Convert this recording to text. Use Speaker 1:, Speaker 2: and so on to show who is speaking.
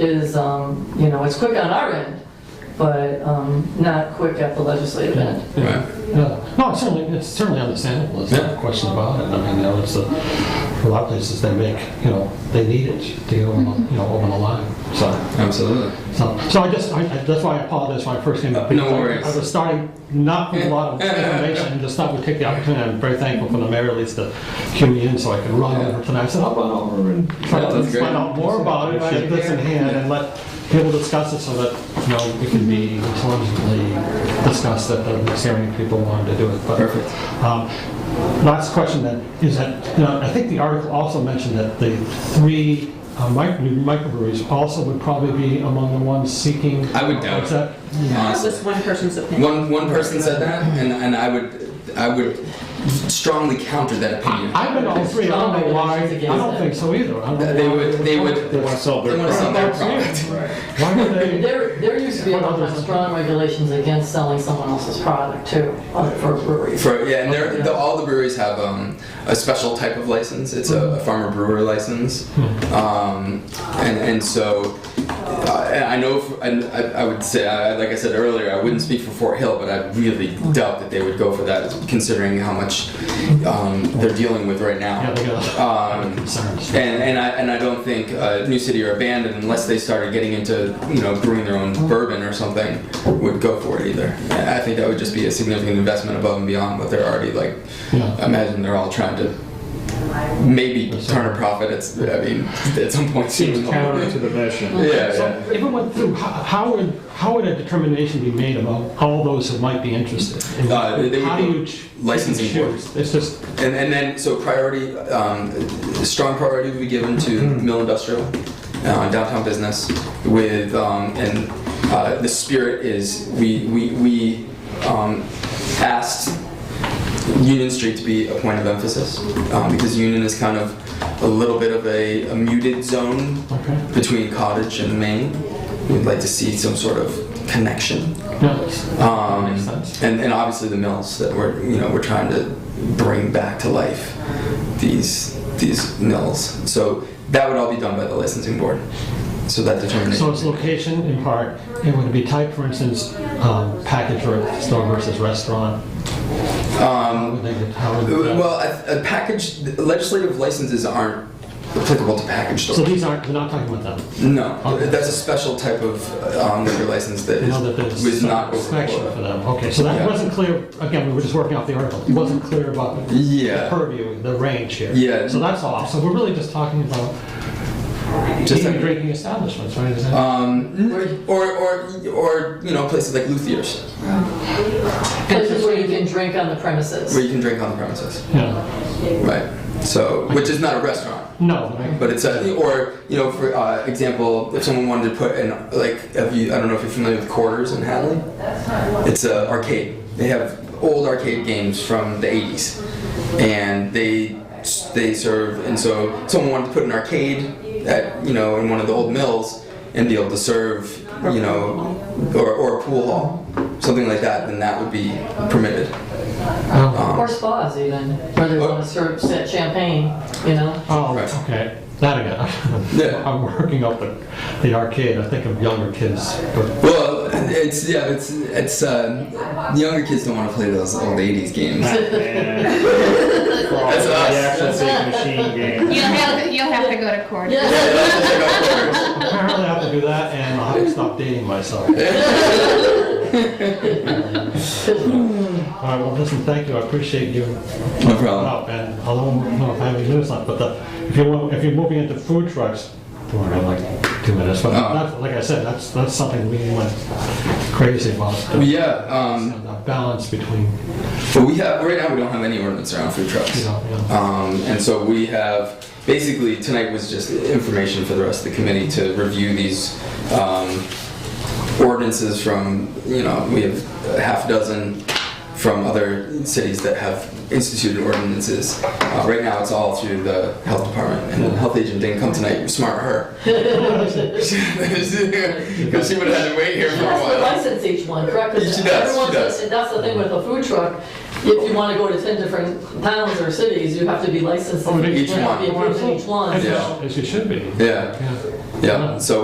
Speaker 1: is, um, you know, it's quick on our end, but um, not quick at the legislative end.
Speaker 2: Right.
Speaker 3: Yeah. No, it's certainly, it's certainly understandable, there's no question about it. I mean, you know, it's a, a lot of places they make, you know, they need it to get over, the- you know, over the line, so.
Speaker 2: Absolutely.
Speaker 3: So, so I just, I, I- that's why I apologize when I first came up.
Speaker 2: No
Speaker 3: because I-
Speaker 2: worries.
Speaker 3: I was starting not with a lot of information, just thought we'd take the opportunity, I'm very thankful for the mayor at least to cue me in so I could run over tonight. I said, I'll run over and try
Speaker 2: Yeah,
Speaker 3: to
Speaker 2: that's great.
Speaker 3: find out more about it, get this in hand, and let people discuss it so that, you know, it can be intelligently discussed at the next hearing if people wanted to do it. But,
Speaker 2: Perfect.
Speaker 3: um, Last question then, is that, you know, I think the article also mentioned that the three uh, mic- new microbreweries also would probably be among the ones seeking.
Speaker 2: I would doubt
Speaker 3: What's
Speaker 2: it.
Speaker 3: that?
Speaker 4: That
Speaker 2: Honestly.
Speaker 4: was one person's opinion.
Speaker 2: One one person said that, and, and I would I would strongly counter that opinion.
Speaker 3: I've been to all three, I don't know why, I don't think so either. I don't know
Speaker 2: They
Speaker 3: why
Speaker 2: would they would
Speaker 3: would-
Speaker 2: want to sell their product.
Speaker 3: Why would they?
Speaker 1: There, there used to be a lot of strong regulations against selling someone else's product too, uh, for breweries.
Speaker 2: For, yeah, and they're, the, all the breweries have um, a special type of license. It's a, farmer brewer license,
Speaker 3: Hmm.
Speaker 2: um, and and so uh, I know. For, and I, I would say, I, like I said earlier, I wouldn't speak for Fort Hill, but I really doubt that they would go for that, considering how much um, they're dealing with right
Speaker 3: Yeah,
Speaker 2: now.
Speaker 3: they got a lot of
Speaker 2: Um,
Speaker 3: concerns.
Speaker 2: And, and I and I don't think uh, New City or Abandon, unless they started getting into you know brewing their own bourbon or something, would go for it either. I I think that would just be a significant investment above and beyond what they're already like.
Speaker 3: Yeah.
Speaker 2: Imagine they're all trying to maybe turn a profit. It's I mean at some point soon.
Speaker 5: Seems counter
Speaker 2: Yeah,
Speaker 5: to the mission.
Speaker 2: yeah.
Speaker 3: So if it went through, how- how would, how would a determination be made about all those who might be interested? And
Speaker 2: Uh, they- they would
Speaker 3: How
Speaker 2: be
Speaker 3: do you ch-
Speaker 2: licensing
Speaker 3: choose? It's just,
Speaker 2: And, and then, so priority, um, strong priority will be given to mill industrial, uh, downtown business with, um, and, uh, the spirit is, we, we, we, um, asked Union Street to be a point of emphasis, um, because Union is kind of a little bit of a, a muted zone
Speaker 3: okay,
Speaker 2: between Cottage and Main. We'd like to see some sort of connection.
Speaker 3: yeah, it's-
Speaker 2: Um,
Speaker 3: Makes sense.
Speaker 2: And, and obviously the mills that we're you know we're trying to bring back to life these these mills. So that would all be done by the licensing board. So that
Speaker 3: So
Speaker 2: determination.
Speaker 3: it's location in part, it would be type, for instance, um, package or store versus restaurant.
Speaker 2: Um,
Speaker 3: Would they get- how would that-
Speaker 2: well, a, a package legislative licenses aren't applicable to package
Speaker 3: So
Speaker 2: stores.
Speaker 3: these aren't, we're not talking about them.
Speaker 2: No,
Speaker 3: Okay.
Speaker 2: that's a special type of um, liquor license that
Speaker 3: I know that
Speaker 2: is, was
Speaker 3: there's
Speaker 2: not
Speaker 3: some
Speaker 2: over
Speaker 3: inspection for
Speaker 2: quota.
Speaker 3: them. Okay, so
Speaker 2: Yeah.
Speaker 3: that wasn't clear, again, we were just working off the article. It wasn't clear about the
Speaker 2: Yeah.
Speaker 3: purview, the range here.
Speaker 2: Yeah.
Speaker 3: So that's all. So we're really just talking about
Speaker 2: Just
Speaker 3: eating and
Speaker 2: like-
Speaker 3: drinking establishments, right? Is that-
Speaker 2: Um, or, or, or, you know, places like Luthier's,
Speaker 1: Places where you can drink on the premises.
Speaker 2: where you can drink on the premises.
Speaker 3: Yeah.
Speaker 2: Right. So, which is not a restaurant.
Speaker 3: No. I-
Speaker 2: But it's a, or you know, for uh, example, if someone wanted to put in like, if you, I don't know if you're familiar with Quarters in Hadley, it's a arcade. They have old arcade games from the 80s, and they they serve. And so someone wanted to put an arcade at you know in one of the old mills and be able to serve you know or, or a pool hall, something like that. Then that would be permitted.
Speaker 3: Oh,
Speaker 1: Or spas even, where they want to serve set champagne, you know?
Speaker 3: Oh,
Speaker 2: Right.
Speaker 3: okay. That again.
Speaker 2: Yeah.
Speaker 3: I'm working up the, the arcade. I think of younger kids, but
Speaker 2: Well, it's yeah, it's it's uh, younger kids don't want to play those old 80s games.
Speaker 5: Man.
Speaker 2: That's
Speaker 5: The
Speaker 2: us.
Speaker 5: actual big machine game.
Speaker 6: You'll have to, you'll have to go to court.
Speaker 3: apparently I have to do that and I'll have to stop dating myself. All right, well, listen, thank you. I appreciate you
Speaker 2: No problem.
Speaker 3: up and I don't know if I have any news on it, but the, if you want, if you're moving into food trucks, don't worry, I'm like two minutes, but
Speaker 2: Oh.
Speaker 3: that's, like I said, that's, that's something we went crazy about. the-
Speaker 2: Yeah, um,
Speaker 3: The balance between,
Speaker 2: but we have right now we don't have any ordinance around food
Speaker 3: you
Speaker 2: trucks.
Speaker 3: know, you know.
Speaker 2: Um, and so we have basically tonight was just information for the rest of the committee to review these um, ordinances from you know we have a half dozen from other cities that have instituted ordinances. Uh, right now it's all through the health department and the health agent didn't come tonight. Smart her. Because she would have had to wait here for a
Speaker 1: That's the
Speaker 2: while.
Speaker 1: license each one, correct? 'Cause
Speaker 2: She does, she
Speaker 1: everyone's-
Speaker 2: does.
Speaker 1: and That's the thing with a food truck, if you want to go to 10 different towns or cities, you have to be licensed.
Speaker 3: Oh,
Speaker 1: in
Speaker 3: each
Speaker 1: You have to be
Speaker 2: one.
Speaker 1: approved in each one.
Speaker 3: As
Speaker 1: so-
Speaker 3: you- As you should be.
Speaker 2: Yeah,
Speaker 3: Yeah.
Speaker 2: yeah. So